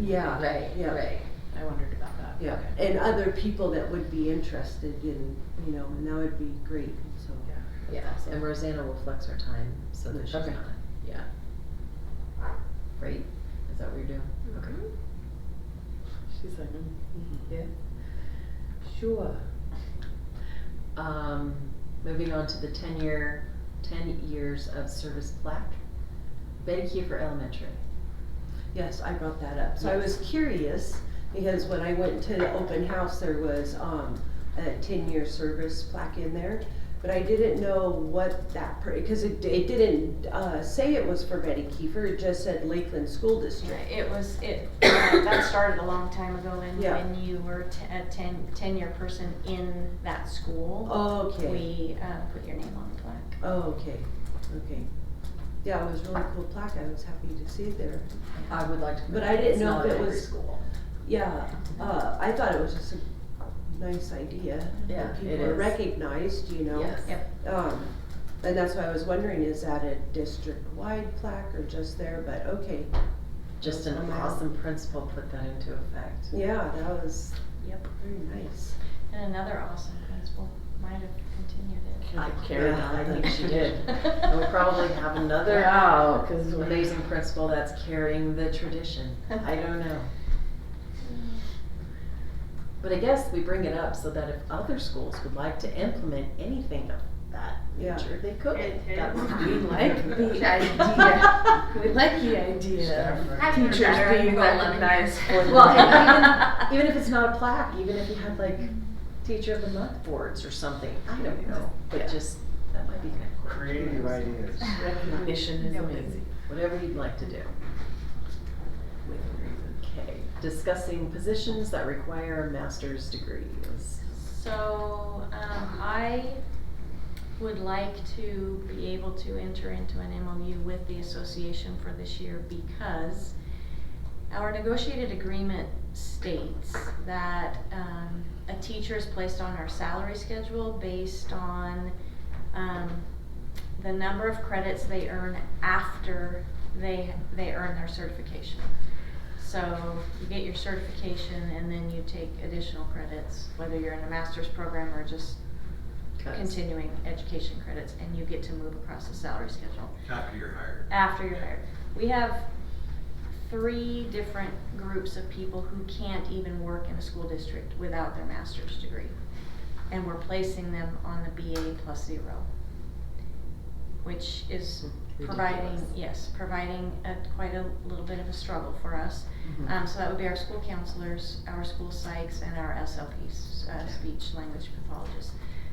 Yeah, Right, yeah. right. I wondered about that. Yeah, Okay. and other people that would be interested in, you know, and that would be great, so. Yes, and Rosanna will flex her time so that she's not, Okay. yeah. Right? Is that what you're doing? Okay. She's like, mm, Mm-hmm. yeah, sure. Um, moving on to the ten-year, ten years of service plaque. Betty Kiefer Elementary. Yes, I brought that up. So I was curious, because when I went to the open house, there was, um, a ten-year service plaque in there. But I didn't know what that, because it, it didn't, uh, say it was for Betty Kiefer, it just said Lakeland School District. It was, it, uh, that started a long time ago when, Yeah. when you were te- a ten, ten-year person in that school. Okay, We, uh, put your name on the plaque. okay, okay. Yeah, it was really cool plaque, I was happy to see it there. I would like to. put But I that. didn't It's know not if at it every was- School. Yeah, uh, I thought it was just a nice idea. Yeah, That it people are is. recognized, you know? Yes. Yep. Um, and that's why I was wondering, is that a district-wide plaque or just there, but okay, Just an Somehow. awesome principal put that into effect. yeah, that was, Yep. very nice. And another awesome principal might have continued it. I carried on, I think she did. And we'll We'll probably have another Wow, 'cause we- amazing principal that's carrying the tradition. I don't know. But I guess we bring it up so that if other schools would like to implement anything of that Yeah. nature, they could. It That would is. be We like the idea. like- We like the idea of Having teachers better being than eleven recognized for years. their Well, work. and even, even if it's not a plaque, even if you had like teacher of the month boards or something, I don't know, Yeah. but just, that might be kind of. cool. Creative ideas. Recognition is Yeah. amazing. Whatever you'd like to do. Within reason. Okay, discussing positions that require a master's degree is So, um, I would like to be able to enter into an MOU with the association for this year because our negotiated agreement states that, um, a teacher is placed on our salary schedule based on, um, the number of credits they earn after they, they earn their certification. So you get your certification and then you take additional credits, whether you're in a master's program or just cuts. continuing education credits, and you get to move across the salary schedule After you're hired. after you're hired. We have three different groups of people who can't even work in a school district without their master's degree. And we're placing them on the BA plus zero, which is providing, Ridiculous. yes, providing a, quite a little bit of a struggle for us. Mhm. Um, so that would be our school counselors, our school psychs, and our SLPs, uh, Okay. speech language pathologists.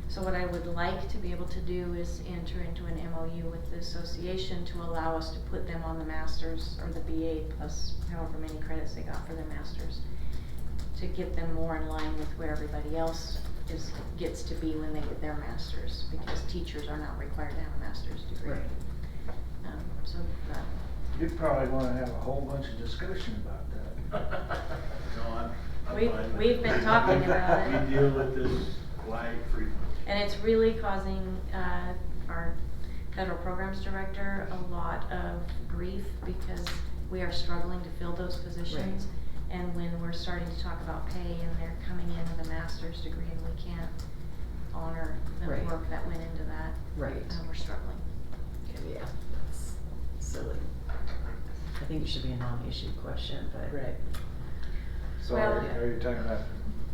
So what I would like to be able to do is enter into an MOU with the association to allow us to put them on the masters or the BA plus however many credits they got for their masters. To get them more in line with where everybody else is, gets to be when they get their masters, because teachers are not required to have a master's degree. Right. Um, so, uh, You probably wanna have a whole bunch of discussion about that. No, I'm, I'm We- fine with we've it. been talking about it. We deal with this quite frequently. And it's really causing uh, our federal programs director a lot of grief because we are struggling to fill those positions. And when we're starting to talk about pay and they're coming in with a master's degree and we can't honor the Right. work that went into that, Right. uh, we're struggling. Yeah, oh, that's silly. I think it should be a non-issue question, but. Right. So Well- are are you talking about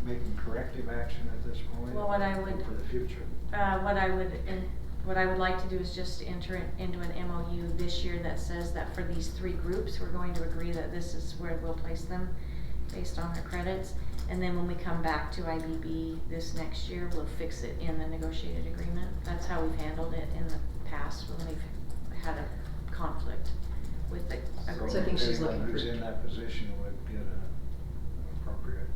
making corrective action at this point? Well, what I would- For the future? Uh, what I would, in- what I would like to do is just enter it into an MOU this year that says that for these three groups, we're going to agree that this is where we'll place them based on their credits. And then when we come back to IBB this next year, we'll fix it in the negotiated agreement. That's how we've handled it in the past when we've had a conflict with the So I think agreement. she's looking Anyone who's for- in that position would get a an appropriate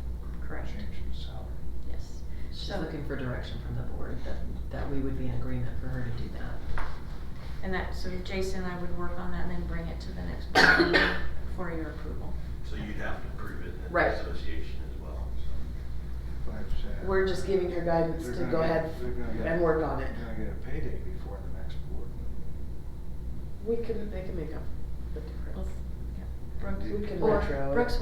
Correct, change in salary. yes. She's So- looking for direction from the board that, that we would be in agreement for her to do that. And that, so Jason and I would work on that and then bring it to the next board meeting for your approval. So you'd have to prove it in the Right. association as well, so. Like I said, We're just giving her guidance uh, they're to gonna go get- ahead they're gonna get- and work on it. They're gonna get a payday before the next board. We can, they can make up the difference. Well, yeah. We can Or retro it. Brooks